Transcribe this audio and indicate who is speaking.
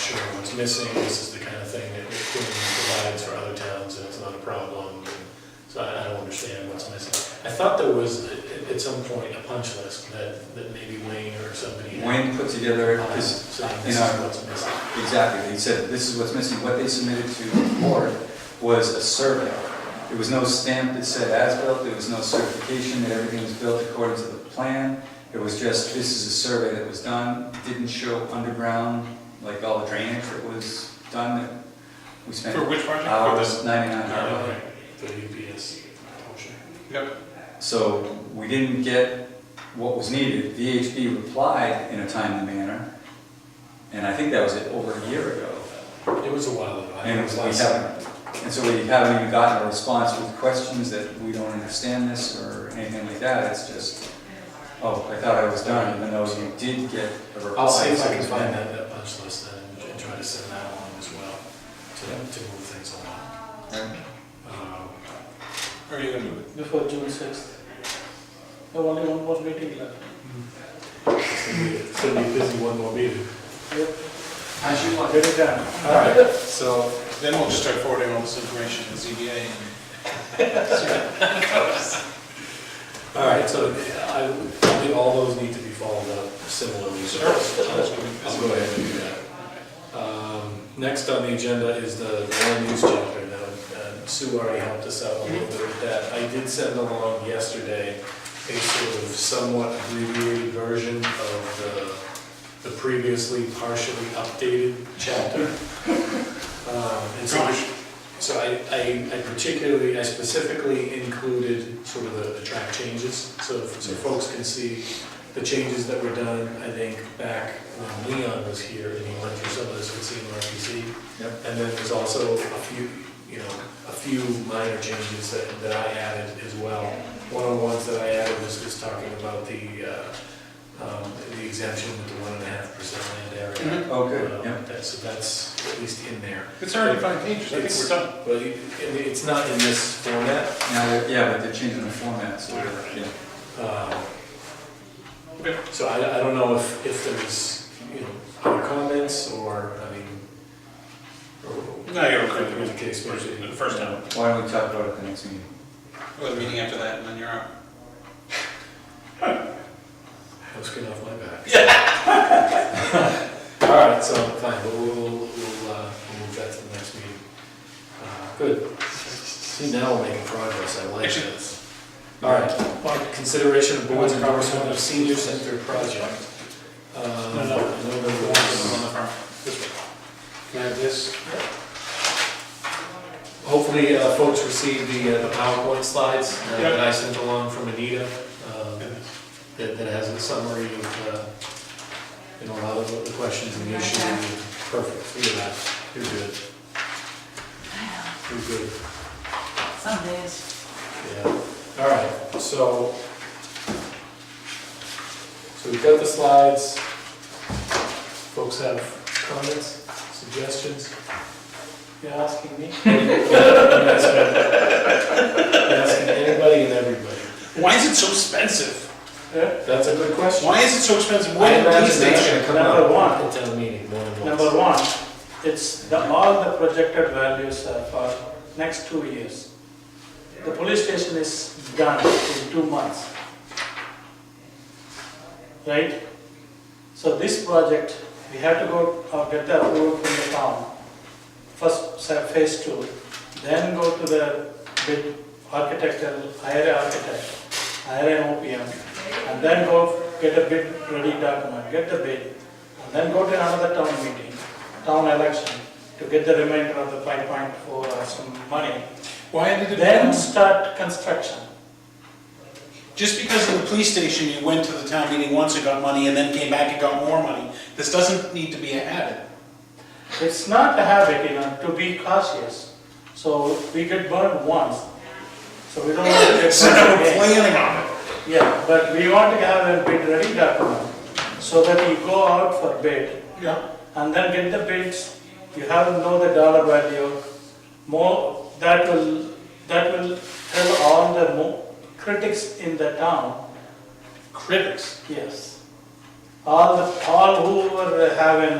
Speaker 1: sure what's missing, this is the kind of thing that Quinn provides for other towns, and it's not a problem. So I I don't understand what's missing. I thought there was, at- at some point, a punch list that, that maybe Wayne or somebody had.
Speaker 2: Wayne put together
Speaker 1: on it,
Speaker 2: his
Speaker 1: Saying
Speaker 2: you
Speaker 1: this is
Speaker 2: know-
Speaker 1: what's missing.
Speaker 2: Exactly, he said, this is what's missing, what they submitted to the board was a survey. There was no stamp that said as-built, there was no certification that everything was built according to the plan. It was just, this is a survey that was done, It didn't show underground, like all the drainage that was done, that we
Speaker 3: For
Speaker 2: spent
Speaker 3: which project? For this? Oh,
Speaker 2: hours, ninety-nine hours.
Speaker 1: Uh, The UPS portion.
Speaker 3: Yep.
Speaker 2: So we didn't get what was needed. VHB replied in a timely manner, and I think that was it over a year ago.
Speaker 1: It was a while ago. I think
Speaker 2: And
Speaker 1: it was
Speaker 2: we
Speaker 1: last
Speaker 2: haven't, and so we haven't even gotten a response with questions that we don't understand this or anything like that. It's just, oh, I thought I was done, even though you did get a reply.
Speaker 1: I'll see if I can find that, that punch list then, and- and try to send that along as well, to, to move things along. Um,
Speaker 3: Or are you gonna do it?
Speaker 4: before June sixth. There only one more meeting left.
Speaker 1: It's gonna be- it's gonna be a busy one more meeting.
Speaker 2: As you want.
Speaker 4: Get it done.
Speaker 3: All right, so then we'll just start forwarding all this information to ZBA and.
Speaker 1: All right, so I, I think all those need to be followed up similarly. so I'll go ahead and do that. Um, Next on the agenda is the land use chapter. Now, uh, Sue already helped us out a little bit with that. I did send along yesterday a sort of somewhat abbreviated version of the, the previously partially updated chapter. Um, And so I- so I, I I particularly, I specifically included sort of the, the track changes, so, so folks can see the changes that were done, I think, back when Leon was here, and he went through some of this with CMRPC.
Speaker 2: Yep.
Speaker 1: And then there's also a few, you know, a few minor changes that, that I added as well. One of the ones that I added was just talking about the, uh, um, the exemption with the one and a half percent land area.
Speaker 3: Mm-hmm.
Speaker 2: Oh, good,
Speaker 1: Um,
Speaker 2: yeah.
Speaker 1: that- So that's at least in there.
Speaker 3: It's already five pages, I think
Speaker 1: It's-
Speaker 3: we're done.
Speaker 1: But it- it- it's not in this format.
Speaker 2: Now, they're- yeah, but they're changing the format, so, yeah.
Speaker 1: Um,
Speaker 3: Okay.
Speaker 1: So I, I don't know if, if there's, you know, other comments or, I mean, or
Speaker 3: No, you're
Speaker 1: whatever the
Speaker 3: okay.
Speaker 1: case may be.
Speaker 3: The first time.
Speaker 2: Why don't we talk about it at the next meeting?
Speaker 3: Well, the meeting after that, and then you're out.
Speaker 1: I was getting off my back. All right, so fine, but we'll, we'll, we'll uh, we'll move that to the next meeting. Uh, Good. See, now we're making progress, I like
Speaker 3: Actually-
Speaker 1: this. All right, on consideration of board's endorsement of senior center project. Um, I know there was-
Speaker 3: On the front. This way.
Speaker 4: Can I have this?
Speaker 1: Hopefully, uh, folks received the uh, the PowerPoint slides uh,
Speaker 3: Yeah.
Speaker 1: that I sent along from Anita, um, that that has a summary of, uh, you know, a lot of the questions and the issues. Perfect, look at that, you're good, you're good,
Speaker 5: Some days.
Speaker 1: yeah. All right, so, so we've got the slides. Folks have comments, suggestions?
Speaker 4: You're asking me?
Speaker 1: Asking anybody and everybody.
Speaker 3: Why is it so expensive?
Speaker 4: Yeah.
Speaker 1: That's a good question.
Speaker 3: Why is it so expensive?
Speaker 1: I
Speaker 3: Why did these
Speaker 1: imagine that's gonna
Speaker 3: things?
Speaker 1: come
Speaker 4: Number
Speaker 1: up
Speaker 4: one.
Speaker 1: at town meeting more than once.
Speaker 4: Number one, it's the, all the projected values are for next two years. The police station is done in two months. Right? So this project, we have to go, uh, get the approval from the town. First, sa- phase two, then go to the bid architectural, hire an architect, hire an OPM, and then go get a bid ready document, get the bid, and then go to another town meeting, town election, to get the remainder of the five point four or some money.
Speaker 3: Why did it?
Speaker 4: Then start construction.
Speaker 3: Just because of the police station, you went to the town meeting once and got money, and then came back and got more money. This doesn't need to be a habit.
Speaker 4: It's not a habit, you know, to be cautious. So we get burned once, so we don't want to get
Speaker 3: So
Speaker 4: burned
Speaker 3: we're
Speaker 4: again.
Speaker 3: planning on it.
Speaker 4: Yeah, but we want to have a bid ready document, so that you go out for bid,
Speaker 3: Yeah.
Speaker 4: and then get the bids, you have to know the dollar value, more, that will, that will tell all the mo- critics in the town,
Speaker 3: Critics.
Speaker 4: yes. All, the all who were having